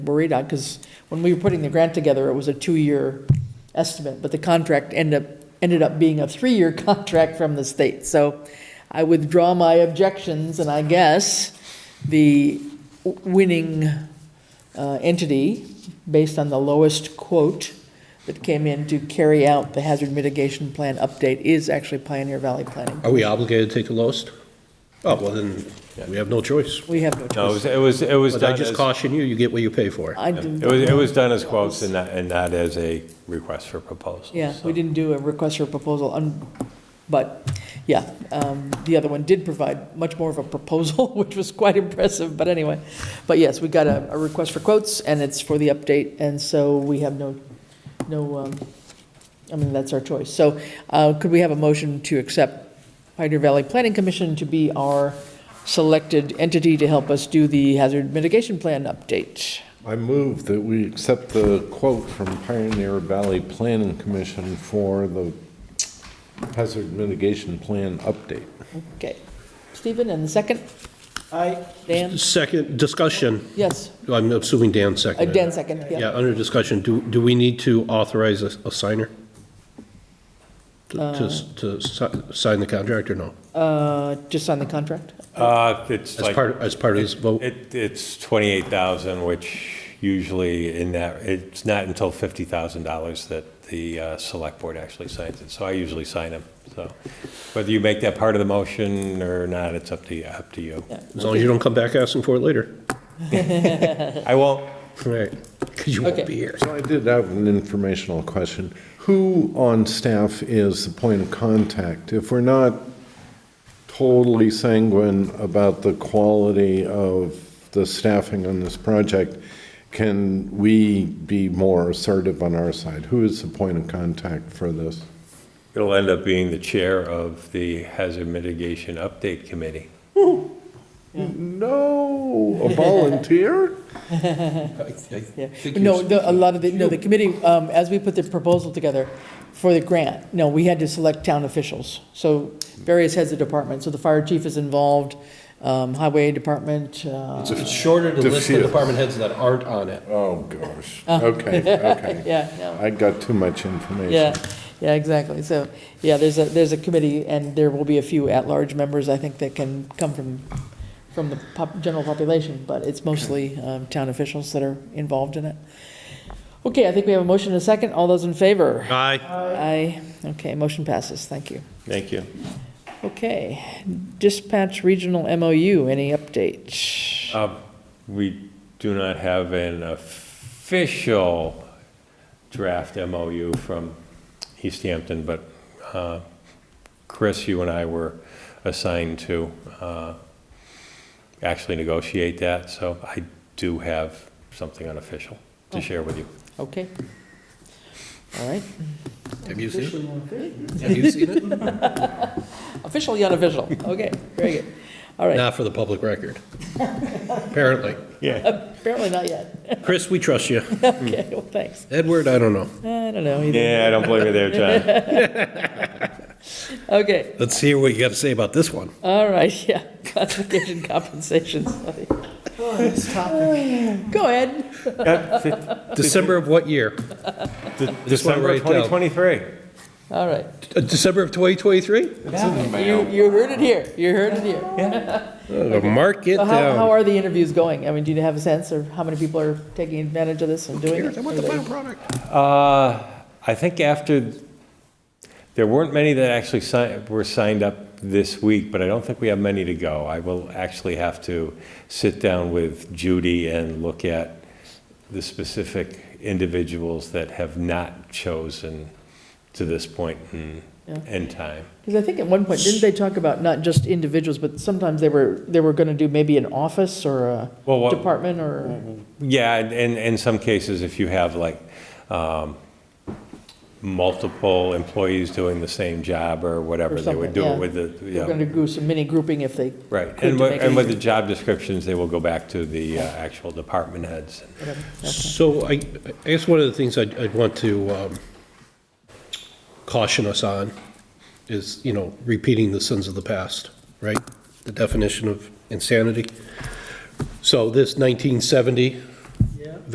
worried on, because when we were putting the grant together, it was a two-year estimate, but the contract ended up, ended up being a three-year contract from the state. So I withdraw my objections, and I guess the w- winning uh, entity, based on the lowest quote that came in to carry out the hazard mitigation plan update, is actually Pioneer Valley Planning. Are we obligated to take the lowest? Oh, well, then, we have no choice. We have no No, it choice. was, it was, it was But I done just as, caution you, you get what you pay for. I it didn't- was, it was done as quotes and not, and not as a request for proposal. Yeah, so. we didn't do a request for proposal, un- but, yeah, um, the other one did provide much more of a proposal, which was quite impressive, but anyway. But yes, we got a, a request for quotes, and it's for the update, and so we have no, no, um, I mean, that's our choice. So uh, could we have a motion to accept Pioneer Valley Planning Commission to be our selected entity to help us do the hazard mitigation plan update? I move that we accept the quote from Pioneer Valley Planning Commission for the hazard mitigation plan update. Okay. Stephen, and the second? Aye. Dan? Second, discussion, Yes. I'm assuming Dan Uh, seconded. Dan second, yeah. Yeah, under discussion, do, do we need to authorize a, a signer? To, to s- to si- sign the contract or no? Uh, Just on the contract? Uh, it's As like, part, as part of this vote? it, it's twenty-eight thousand, which usually in that, it's not until fifty thousand dollars that the, uh, select board actually signs it, so I usually sign them, so. Whether you make that part of the motion or not, it's up to you, up to you. As long as you don't come back asking for it later. I won't, All Right, because you Okay. won't be here. So I did have an informational question. Who on staff is the point of contact? If we're not totally sanguine about the quality of the staffing on this project, can we be more assertive on our side? Who is the point of contact for this? it'll end up being the chair of the hazard mitigation update committee. No, a volunteer? Yeah. No, the- a lot of the, no, the committee, um, as we put the proposal together for the grant, no, we had to select town officials. So various heads of department. So the fire chief is involved, um, highway department, uh, It's shorter to list the Diffuse. department heads that aren't on it. Oh, gosh. Okay, okay. Uh. yeah, no. I got too much information. Yeah, yeah, exactly. So, yeah, there's a, there's a committee, and there will be a few at-large members, I think, that can come from, from the pop, general population, but it's mostly, um, town officials that are involved in it. Okay, I think we have a motion and a second. All those in favor? Aye. Aye. Okay, motion passes. Thank you. Thank you. Okay, dispatch regional MOU, any update? Uh, We do not have an official draft MOU from East Hampton, but uh, Chris, you and I were assigned to uh, actually negotiate that, so I do have something unofficial to share with you. Okay. All right, Have you seen it? Have you seen it? officially unofficial. Okay, very good. All right, Not for the public record, apparently. Yeah. apparently not yet. Chris, we trust you. Okay, well, thanks. Edward, I don't know. I don't know either. Yeah, I don't blame you there, John. Okay, Let's hear what you got to say about this one. all right, yeah, classification compensation study. Go ahead. December of what year? De- Just wanna December of write down. 2023. All right. Uh, December of 2023? You, you heard it here. You heard it here. Uh, Mark it So how, how down. are the interviews going? I mean, do you have a sense of how many people are taking advantage of this and doing it? I want the final product. Uh, I think after, there weren't many that actually signed, were signed up this week, but I don't think we have many to go. I will actually have to sit down with Judy and look at the specific individuals that have not chosen to this point in, Yeah. in time. Because I think at one point, didn't they talk about not just individuals, but sometimes they were, they were gonna do maybe an office or a Well, what- department or, Yeah, and, and in some cases, if you have like um, multiple employees doing the same job or whatever, they would something, do yeah. it with the, they yeah. were gonna do some mini grouping if they. Right, could and to with, make it and with the easier. job descriptions, they will go back to the uh, actual department heads. Whatever. So I, I guess one of the things I'd, I'd want to um, caution us on is, you know, repeating the sins of the past, right? The definition of insanity. So this 1970